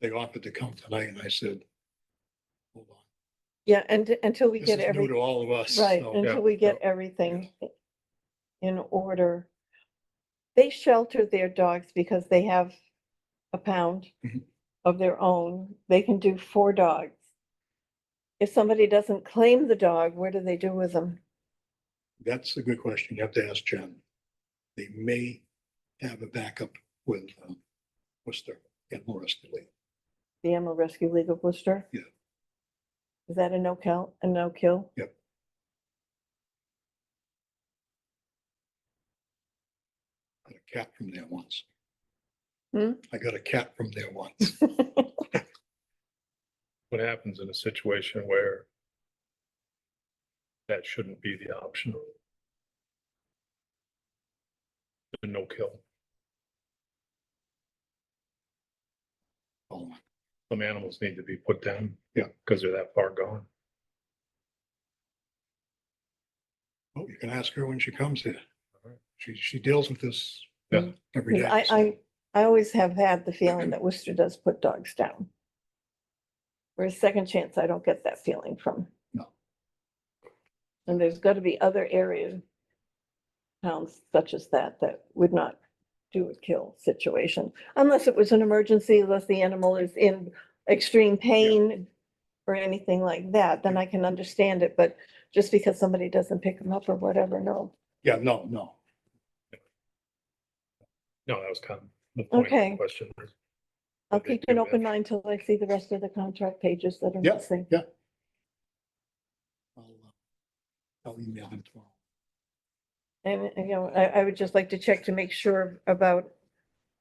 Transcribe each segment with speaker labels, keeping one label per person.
Speaker 1: they offered to come tonight and I said, hold on.
Speaker 2: Yeah, and until we
Speaker 1: This is
Speaker 2: get
Speaker 1: new
Speaker 2: every,
Speaker 1: to all of us.
Speaker 2: right,
Speaker 1: so-
Speaker 2: until we get everything in order. They shelter their dogs because they have a pound
Speaker 1: Mhm.
Speaker 2: of their own. They can do four dogs. If somebody doesn't claim the dog, what do they do with them?
Speaker 1: That's a good question. You have to ask Jen. They may have a backup with um, Worcester and Morris Lee.
Speaker 2: The Animal Rescue League of Worcester?
Speaker 1: Yeah.
Speaker 2: Is that a no-kill, a no-kill?
Speaker 1: Yep. Got a cat from there once.
Speaker 2: Hmm?
Speaker 1: I got a cat from there once.
Speaker 3: what happens in a situation where that shouldn't be the option? The no kill,
Speaker 1: Oh, my.
Speaker 3: some animals need to be put down.
Speaker 1: Yeah.
Speaker 3: Because they're that far gone.
Speaker 1: Oh, you can ask her when she comes here.
Speaker 3: Alright.
Speaker 1: She, she deals with this
Speaker 3: Yeah.
Speaker 1: every day.
Speaker 2: Because Mm-hmm. I,
Speaker 1: so-
Speaker 2: I, I always have had the feeling that Worcester does put dogs down. Whereas Second Chance, I don't get that feeling from.
Speaker 1: No.
Speaker 2: And there's got to be other areas, towns such as that, that would not do a kill situation. Unless it was an emergency, unless the animal is in extreme pain or anything like that, then I can understand it. But just because somebody doesn't pick them up or whatever, no.
Speaker 1: Yeah, no, no.
Speaker 3: No, that was kind of the point of
Speaker 2: Okay.
Speaker 3: the question.
Speaker 2: I'll
Speaker 3: But they
Speaker 2: keep an
Speaker 3: do
Speaker 2: open
Speaker 3: have-
Speaker 2: mind till I see the rest of the contract pages that are
Speaker 1: Yeah.
Speaker 2: missing.
Speaker 1: I'll uh, I'll email him tomorrow.
Speaker 2: And, you know, I, I would just like to check to make sure about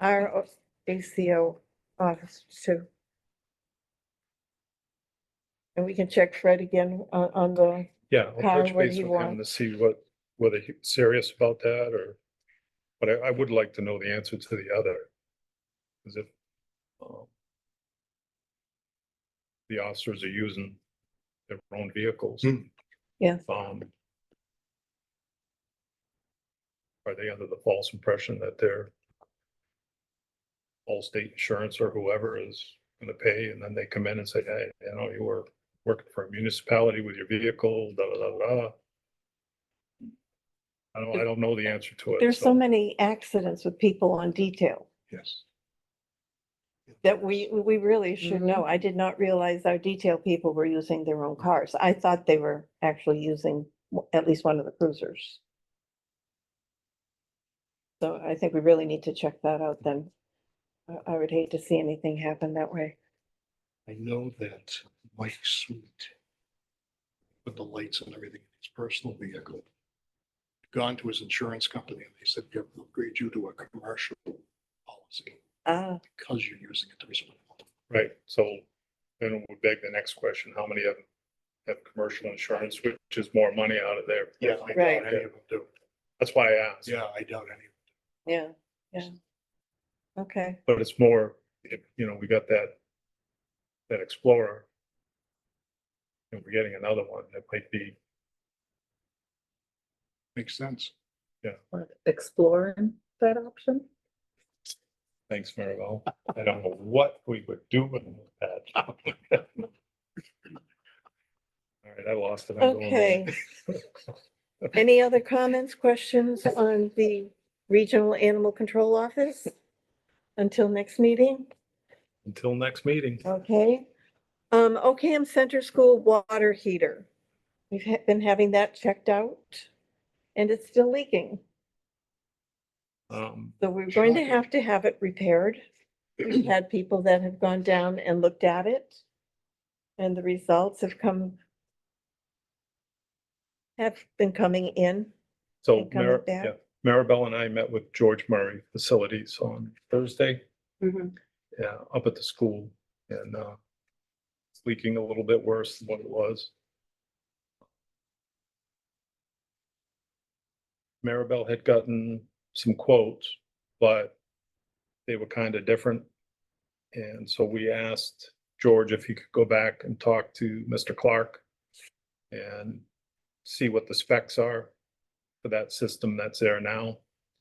Speaker 2: our o- ACO office too. And we can check Fred again on, on the,
Speaker 3: Yeah.
Speaker 2: Karen,
Speaker 3: I'll touch
Speaker 2: what do
Speaker 3: base
Speaker 2: you
Speaker 3: with him
Speaker 2: want?
Speaker 3: To see what, whether he's serious about that or, but I, I would like to know the answer to the other. Cause if, um, the officers are using their own vehicles.
Speaker 1: Hmm.
Speaker 2: Yes.
Speaker 3: Um, are they under the false impression that their all state insurance or whoever is gonna pay and then they come in and say, hey, you know, you were working for a municipality with your vehicle, da, da, da, da. I don't, I don't know the answer to it.
Speaker 2: there's so many accidents with people on detail
Speaker 1: Yes.
Speaker 2: that we, we really should know. I did not realize our detail people were using their own cars. I thought they were actually using w- at least one of the cruisers. So I think we really need to check that out then. I- I would hate to see anything happen that way.
Speaker 1: I know that Mike Sweet put the lights and everything in his personal vehicle. Gone to his insurance company and they said, we have to upgrade you to a commercial policy
Speaker 2: Ah,
Speaker 1: because you're using it to respond.
Speaker 3: Right, so then we beg the next question, how many of them have commercial insurance, which is more money out of there?
Speaker 1: I doubt
Speaker 2: Right.
Speaker 1: any of them do.
Speaker 3: That's why I asked.
Speaker 1: Yeah, I doubt any.
Speaker 2: yeah, yeah. Okay,
Speaker 3: But it's more, if, you know, we got that, that Explorer. And we're getting another one that might be,
Speaker 1: Makes sense.
Speaker 4: Or exploring that option?
Speaker 3: thanks, Maribel. I don't know what we would do with that. All right, I lost it. I'm going
Speaker 2: okay.
Speaker 3: home.
Speaker 2: Any other comments, questions on the Regional Animal Control Office? Until next meeting?
Speaker 3: Until next meeting.
Speaker 2: Oh. Okay. Um, OCAM Center School water heater. We've ha- been having that checked out and it's still leaking.
Speaker 3: Um,
Speaker 2: So we're going to
Speaker 1: Shocking.
Speaker 2: have to have it repaired. We've had people that have gone down and looked at it. And the results have come have been coming in.
Speaker 3: So
Speaker 2: And coming
Speaker 3: Mar-
Speaker 2: back.
Speaker 3: yeah, Maribel and I met with George Murray Facilities on Thursday, yeah, up at the school and uh. It's leaking a little bit worse than what it was. Maribel had gotten some quotes, but they were kind of different. And so we asked George if he could go back and talk to Mr. Clark and see what the specs are for that system that's there now.